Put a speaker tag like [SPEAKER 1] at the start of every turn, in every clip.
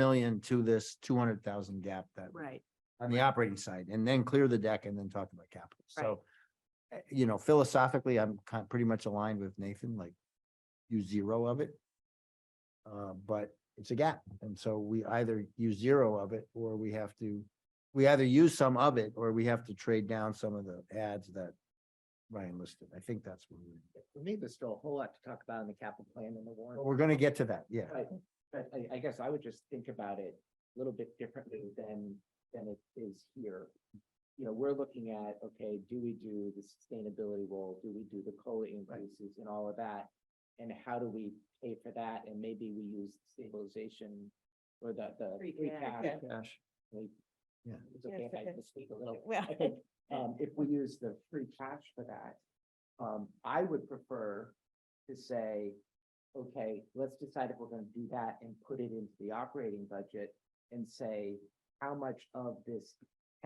[SPEAKER 1] million to this two hundred thousand gap that
[SPEAKER 2] Right,
[SPEAKER 1] on the operating side and then clear the deck and then talk about capital.
[SPEAKER 2] Right.
[SPEAKER 1] So eh, you know, philosophically, I'm kind pretty much aligned with Nathan, like use zero of it. Uh, but it's a gap. And so we either use zero of it or we have to, we either use some of it or we have to trade down some of the ads that Ryan listed. I think that's what we're,
[SPEAKER 3] For me, there's still a whole lot to talk about in the capital plan and the
[SPEAKER 1] but
[SPEAKER 3] warrant.
[SPEAKER 1] we're gonna get to that. Oh, Yeah.
[SPEAKER 3] But, but I, I guess I would just think about it a little bit differently than, than it is here. You know, we're looking at, okay, do we do the sustainability role? Do we do the COLA increases and all of that? And how do we pay for that? And maybe we use stabilization or the, the.
[SPEAKER 2] Free
[SPEAKER 3] free
[SPEAKER 2] cash.
[SPEAKER 3] cash.
[SPEAKER 1] Cash.
[SPEAKER 3] Like,
[SPEAKER 1] Yeah.
[SPEAKER 3] It's okay if I misspeak a little.
[SPEAKER 2] Well.
[SPEAKER 3] I think um, if we use the free cash for that, um, I would prefer to say, okay, let's decide if we're gonna do that and put it into the operating budget and say, how much of this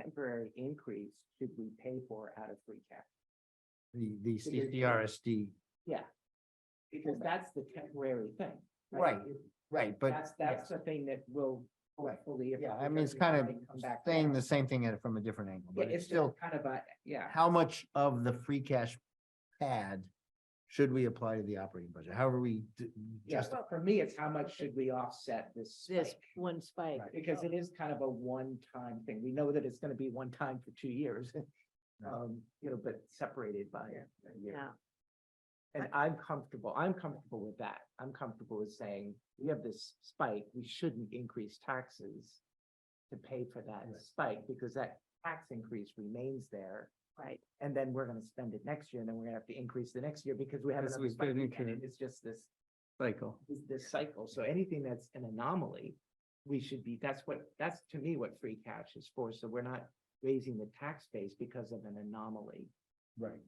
[SPEAKER 3] temporary increase should we pay for out of free cash?
[SPEAKER 1] The, the CCRSD.
[SPEAKER 3] Yeah. Because that's the temporary thing.
[SPEAKER 1] Right, Right, but.
[SPEAKER 3] That's, that's the thing that will
[SPEAKER 1] Right.
[SPEAKER 3] hopefully. if
[SPEAKER 1] Yeah,
[SPEAKER 3] it
[SPEAKER 1] I mean, it's
[SPEAKER 3] doesn't
[SPEAKER 1] kind of
[SPEAKER 3] already come back
[SPEAKER 1] saying
[SPEAKER 3] down.
[SPEAKER 1] the same thing at- from a different angle,
[SPEAKER 3] Yeah,
[SPEAKER 1] but it's
[SPEAKER 3] just
[SPEAKER 1] still,
[SPEAKER 3] Kind of a, yeah.
[SPEAKER 1] how much of the free cash pad should we apply to the operating budget? However we d-
[SPEAKER 3] Yes,
[SPEAKER 1] just,
[SPEAKER 3] for me, it's how much should we offset this
[SPEAKER 2] this
[SPEAKER 3] spike?
[SPEAKER 2] one spike.
[SPEAKER 1] Right.
[SPEAKER 3] Because it is kind of a one-time thing. We know that it's gonna be one time for two years.
[SPEAKER 1] Yeah.
[SPEAKER 3] Um, you know, but separated by a year.
[SPEAKER 2] Yeah.
[SPEAKER 3] And I'm comfortable, I'm comfortable with that. I'm comfortable with saying, we have this spike, we shouldn't increase taxes to pay for that
[SPEAKER 1] Right.
[SPEAKER 3] spike, because that tax increase remains there.
[SPEAKER 2] Right,
[SPEAKER 3] And then we're gonna spend it next year, and then we're gonna have to increase the next year because we have
[SPEAKER 4] Because
[SPEAKER 3] another
[SPEAKER 4] we
[SPEAKER 3] spike.
[SPEAKER 4] didn't
[SPEAKER 3] again,
[SPEAKER 4] increase-
[SPEAKER 3] and It's just this
[SPEAKER 4] cycle.
[SPEAKER 3] is this cycle. So anything that's an anomaly, we should be, that's what, that's to me what free cash is for. So we're not raising the tax base because of an anomaly.
[SPEAKER 1] right,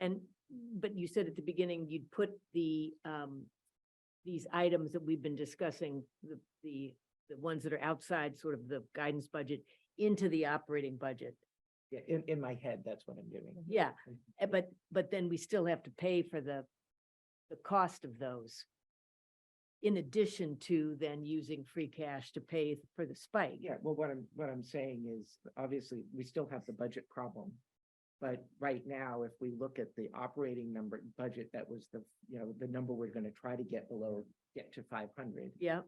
[SPEAKER 2] and, but you said at the beginning, you'd put the, um, these items that we've been discussing, the, the, the ones that are outside sort of the guidance budget into the operating budget.
[SPEAKER 3] Yeah, in, in my head, that's what I'm doing.
[SPEAKER 2] Yeah, eh, but, but then we still have to pay for the, the cost of those. In addition to then using free cash to pay for the spike.
[SPEAKER 3] Yeah, well, what I'm, what I'm saying is, obviously, we still have the budget problem. But right now, if we look at the operating number, budget, that was the, you know, the number we're gonna try to get below, get to five hundred.
[SPEAKER 2] Yeah,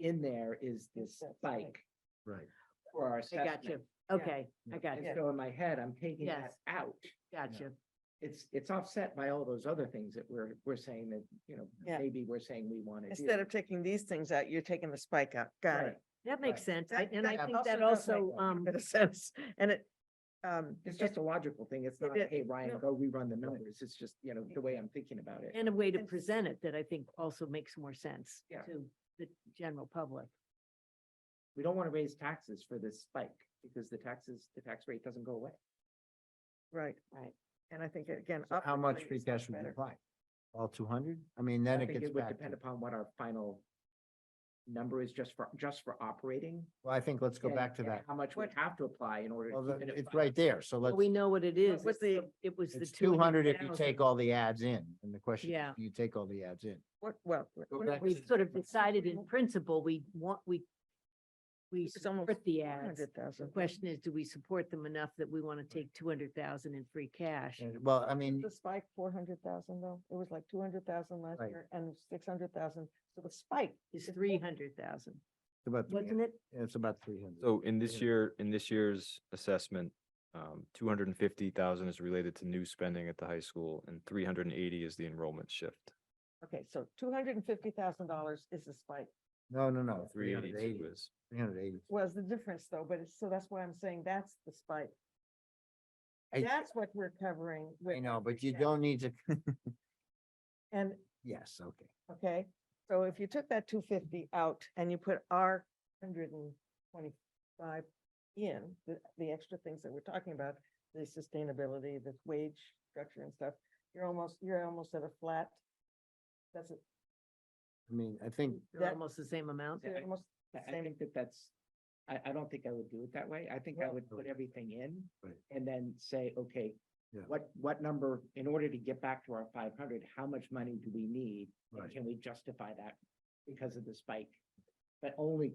[SPEAKER 3] In there is this
[SPEAKER 2] That's right.
[SPEAKER 3] spike
[SPEAKER 1] right.
[SPEAKER 3] for our
[SPEAKER 2] I got you.
[SPEAKER 3] assessment.
[SPEAKER 2] Okay, I got
[SPEAKER 3] And
[SPEAKER 2] you,
[SPEAKER 3] so in my head, I'm taking that
[SPEAKER 2] Yes.
[SPEAKER 3] out.
[SPEAKER 2] got you.
[SPEAKER 3] it's, it's offset by all those other things that we're, we're saying that, you know,
[SPEAKER 5] Yeah.
[SPEAKER 3] maybe we're saying we want to do.
[SPEAKER 5] Instead of taking these things out, you're taking the spike out. Got
[SPEAKER 3] Right.
[SPEAKER 5] it.
[SPEAKER 2] That makes sense, I-
[SPEAKER 5] That-
[SPEAKER 2] and I
[SPEAKER 5] that
[SPEAKER 2] think that
[SPEAKER 5] also does make
[SPEAKER 2] also, um,
[SPEAKER 5] Bit of sense. And it, um,
[SPEAKER 3] It's just a logical thing. It's not,
[SPEAKER 5] It is.
[SPEAKER 3] hey, Ryan,
[SPEAKER 5] No.
[SPEAKER 3] go rerun the numbers. It's just, you know, the way I'm thinking about it.
[SPEAKER 2] and a way to
[SPEAKER 5] And-
[SPEAKER 2] present it that I think also makes more sense
[SPEAKER 3] Yeah.
[SPEAKER 2] to the general public.
[SPEAKER 3] We don't want to raise taxes for this spike because the taxes, the tax rate doesn't go away.
[SPEAKER 5] right.
[SPEAKER 2] Right.
[SPEAKER 5] And I think again.
[SPEAKER 1] So How much
[SPEAKER 5] optically
[SPEAKER 1] free
[SPEAKER 5] it's much
[SPEAKER 1] cash would we
[SPEAKER 5] better.
[SPEAKER 1] apply? All two hundred? I mean,
[SPEAKER 3] I
[SPEAKER 1] then it
[SPEAKER 3] think
[SPEAKER 1] gets
[SPEAKER 3] it would
[SPEAKER 1] back. to-
[SPEAKER 3] depend upon what our final number is just for, just for operating.
[SPEAKER 1] Well, I think let's go
[SPEAKER 3] and-
[SPEAKER 1] back to
[SPEAKER 3] and
[SPEAKER 1] that.
[SPEAKER 3] How much we
[SPEAKER 5] What-
[SPEAKER 3] have to apply in order. to
[SPEAKER 1] Well,
[SPEAKER 3] keep
[SPEAKER 1] the-
[SPEAKER 3] it at
[SPEAKER 1] it's
[SPEAKER 3] five.
[SPEAKER 1] right there, so
[SPEAKER 2] But
[SPEAKER 1] let's,
[SPEAKER 2] we know what it is.
[SPEAKER 5] was
[SPEAKER 2] It's the-
[SPEAKER 5] the-
[SPEAKER 2] It was the
[SPEAKER 1] it's two hundred if you
[SPEAKER 2] 200,000.
[SPEAKER 1] take all the ads in, and the question is,
[SPEAKER 2] Yeah.
[SPEAKER 1] do you take all the ads in?
[SPEAKER 5] What, well,
[SPEAKER 1] Go
[SPEAKER 5] we're not-
[SPEAKER 1] back
[SPEAKER 2] We
[SPEAKER 1] to-
[SPEAKER 2] sort of decided in principle, we want, we, we
[SPEAKER 5] It's almost
[SPEAKER 2] support the ads. The
[SPEAKER 5] 400,000.
[SPEAKER 2] question is, do we support them enough that we want to take two hundred thousand in free cash?
[SPEAKER 1] And- Well, I mean,
[SPEAKER 5] The spike, four hundred thousand though. It was like two hundred thousand last
[SPEAKER 1] Right.
[SPEAKER 5] year and six hundred thousand. So the spike.
[SPEAKER 2] Is
[SPEAKER 5] is
[SPEAKER 2] three hundred thousand,
[SPEAKER 1] it's about, three hun-
[SPEAKER 2] wasn't it?
[SPEAKER 1] it's about three hundred.
[SPEAKER 4] So in this
[SPEAKER 1] Yeah.
[SPEAKER 4] year, in this year's assessment, um, two hundred and fifty thousand is related to new spending at the high school and three hundred and eighty is the enrollment shift.
[SPEAKER 5] Okay, so two hundred and fifty thousand dollars is the spike.
[SPEAKER 1] No, no, no, three
[SPEAKER 4] Three
[SPEAKER 1] hundred
[SPEAKER 4] eighty-two
[SPEAKER 1] eighty,
[SPEAKER 4] is,
[SPEAKER 1] three hundred eighty.
[SPEAKER 5] Was the difference though, but it's, so that's why I'm saying that's the spike.
[SPEAKER 1] I-
[SPEAKER 5] That's what we're covering
[SPEAKER 1] I
[SPEAKER 5] with,
[SPEAKER 1] know, but you
[SPEAKER 5] Yeah.
[SPEAKER 1] don't need to,
[SPEAKER 5] and
[SPEAKER 1] yes, okay.
[SPEAKER 5] Okay, so if you took that two fifty out and you put our hundred and twenty-five in, the, the extra things that we're talking about, the sustainability, the wage structure and stuff, you're almost, you're almost at a flat. That's it,
[SPEAKER 1] I mean, I think
[SPEAKER 2] They're
[SPEAKER 5] That-
[SPEAKER 2] almost the same amount.
[SPEAKER 3] Yeah,
[SPEAKER 5] you're
[SPEAKER 3] I-
[SPEAKER 5] almost the
[SPEAKER 3] I- I
[SPEAKER 5] same.
[SPEAKER 3] think that that's, I, I don't think I would do it that way. I think I
[SPEAKER 5] Well-
[SPEAKER 3] would put everything in
[SPEAKER 1] Right.
[SPEAKER 3] and then say, okay,
[SPEAKER 1] Yeah.
[SPEAKER 3] what, what number, in order to get back to our five hundred, how much money do we need? And
[SPEAKER 1] Right.
[SPEAKER 3] can we justify that because of the spike? but only